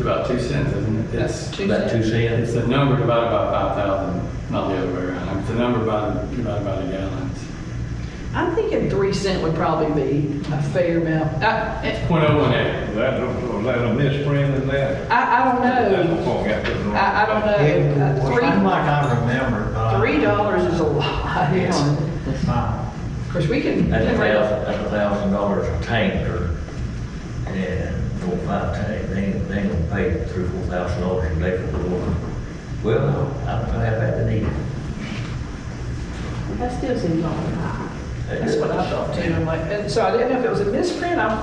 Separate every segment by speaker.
Speaker 1: about two cents, isn't it? It's-
Speaker 2: That's
Speaker 3: About two
Speaker 1: It's
Speaker 3: cents?
Speaker 1: the number divided by five thousand, not the other way around. It's the number by- divided by the gallons.
Speaker 2: I'm thinking three cent would probably be a fair amount. I, it-
Speaker 1: Point oh one eight.
Speaker 4: That, was that a misprint in that?
Speaker 2: I, I don't
Speaker 4: That's
Speaker 2: know.
Speaker 4: what got to the wrong-
Speaker 2: I, I don't know.
Speaker 5: It was, I'm
Speaker 2: Uh,
Speaker 5: like, I remember, but.
Speaker 2: Three, three dollars is a lot. you know.
Speaker 5: It's fine.
Speaker 2: Of course, we can.
Speaker 3: That's a
Speaker 2: generate-
Speaker 3: thousand, that's a thousand dollars a tank or, yeah, four, five tank, they, ain't- they ain't gonna pay three, four thousand dollars a day for the water. Well, I'm gonna have that to need.
Speaker 2: That still seems awful That's what I thought too. I'm like, and so I didn't know if it was a misprint. I'm,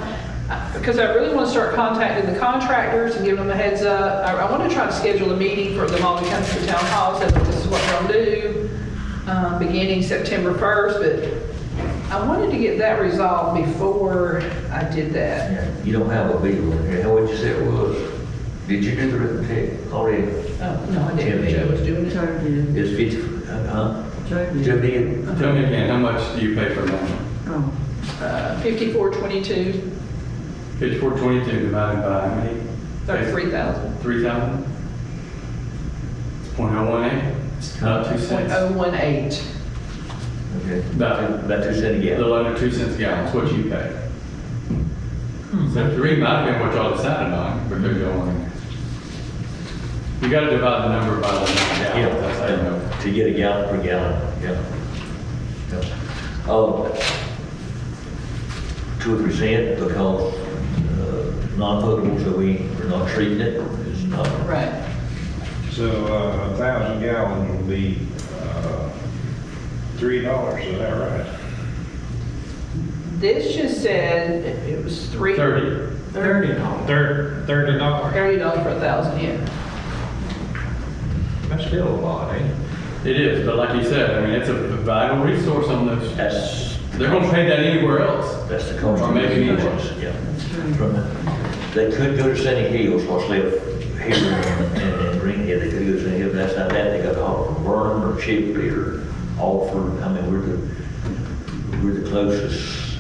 Speaker 2: because I really want to start contacting the contractors and giving them a heads up. I, I want to try to schedule a meeting for them all to come to the town hall, so that this is what we're gonna do, um, beginning September first, but I wanted to get that resolved before I did that.
Speaker 3: Yeah, You don't have a bill in here, how would you say it was? Did you do the arithmetic already?
Speaker 2: Oh, no, I didn't. Joe was doing it.
Speaker 6: Joe did,
Speaker 3: It's fifty, uh, huh?
Speaker 6: Joe
Speaker 3: Joe
Speaker 6: did.
Speaker 3: did?
Speaker 1: Tell me again, how much do you pay for one?
Speaker 6: Oh,
Speaker 2: Uh, fifty-four, twenty-two,
Speaker 1: Fifty-four twenty-two divided by how many?
Speaker 2: thirty-three thousand,
Speaker 1: Three thousand? It's point oh one eight. It's about two
Speaker 2: point
Speaker 1: cents.
Speaker 2: oh one eight.
Speaker 3: Okay.
Speaker 1: About-
Speaker 3: About two cents a
Speaker 1: A
Speaker 3: gallon.
Speaker 1: little under two cents a gallon is what you pay. So three might have been what y'all decided on, but they're going. You gotta divide the number by the number of
Speaker 3: Yeah,
Speaker 1: gallons, that's how you know.
Speaker 3: to get a gallon per gallon, yeah. Yeah. Oh, two or three cent because uh, non-potable, so we, we're not treating it, it's not.
Speaker 2: Right.
Speaker 4: So, uh, a thousand gallons would be, uh, three dollars, is that right?
Speaker 2: This just said it- it was three.
Speaker 1: Thirty.
Speaker 5: Thirty dollars.
Speaker 4: Thir- thirty dollars.
Speaker 2: Thirty dollars for a thousand, yeah.
Speaker 4: That's still a lot, ain't it?
Speaker 1: It is, but like you said, I mean, it's a vital resource on those.
Speaker 3: That's.
Speaker 1: They're gonna pay that anywhere else.
Speaker 3: That's the cost.
Speaker 1: Or maybe even worse.
Speaker 3: Yeah. From the- They could go to Sunny Hills, what's left here in- in in Greenhead, they could go to Sunny Hills, but that's not that, they got to haul from Vernon or Chipley or Alford, I mean, we're the, we're the closest.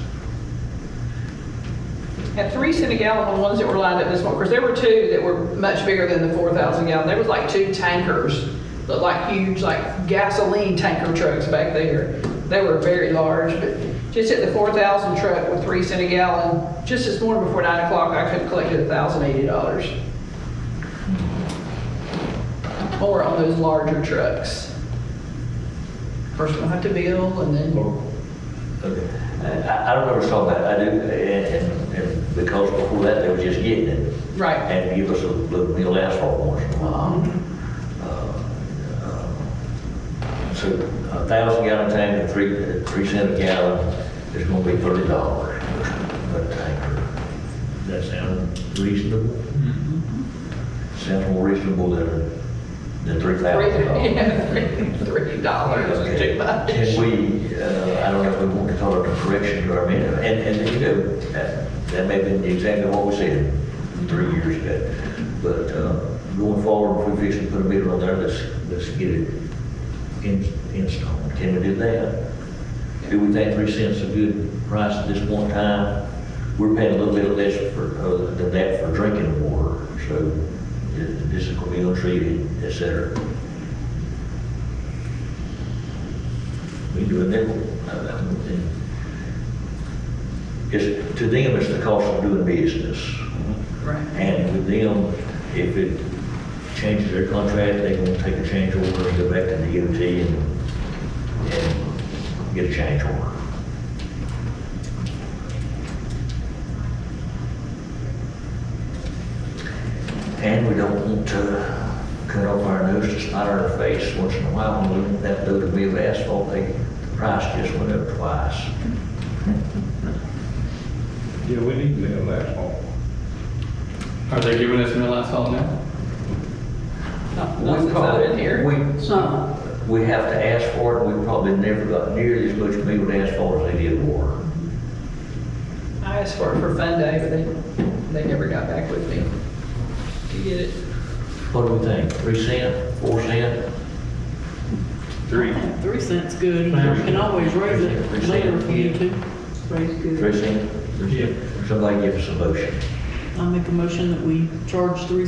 Speaker 2: At three cent a gallon, the ones that were lined up this morning, because there were two that were much bigger than the four thousand gallon. There was like two tankers, looked like huge, like gasoline tanker trucks back there. They were very large, but just at the four thousand truck with three cent a gallon, just this morning before nine o'clock, I could have collected a thousand eighty dollars. More on those larger trucks. First we'll have to bill and then.
Speaker 3: Okay. I, I don't ever saw that, I do, and, and- and because before that, they were just getting it.
Speaker 2: Right.
Speaker 3: And give us a little meal asphalt once in a while. Mm-hmm. Uh, So a thousand gallon tank and three, three cent a gallon is gonna be thirty dollars a tanker. That sound reasonable? Sounds more reasonable than, than Mm-hmm. three thousand dollars.
Speaker 2: Three- Three dollars is too much.
Speaker 3: Can we, uh, I don't know if we want to call it a correction to our amendment, and, and, you know, that that may have been exactly what we said three years ago. But, uh, going forward, if we fix and put a meter on there, let's, let's get it in, installed. Can we do that? Do we think three cents is a good price at this point in time? We're paying a little bit less for, uh, than that for drinking water, so th- this is gonna be untreated, et cetera. We do a nickel. uh, that would be- It's, to them, it's the cost of doing business.
Speaker 2: Right.
Speaker 3: And with them, if it changes their contract, they gonna take a change order and go back to the DOT and, and get a change order. And we don't want to cut off our nose to spite our face once in a while. When we look at that load of meal asphalt, they, the price just went up twice.
Speaker 4: Yeah, we need to live that long.
Speaker 1: Are they giving us mill asphalt now?
Speaker 2: Not not since I've been here.
Speaker 3: We,
Speaker 6: it's not.
Speaker 3: we have to ask for it, and we probably never got nearly as much meal asphalt as they did water.
Speaker 2: I asked for it for fun day, but they, they never got back with me to get it.
Speaker 3: What do we think, three cent, four cent?
Speaker 4: Three.
Speaker 7: Three cents good, you can always raise it later if you need to.
Speaker 6: Raise good.
Speaker 3: Three cent? Somebody give us a motion.
Speaker 7: I make a motion that we charge three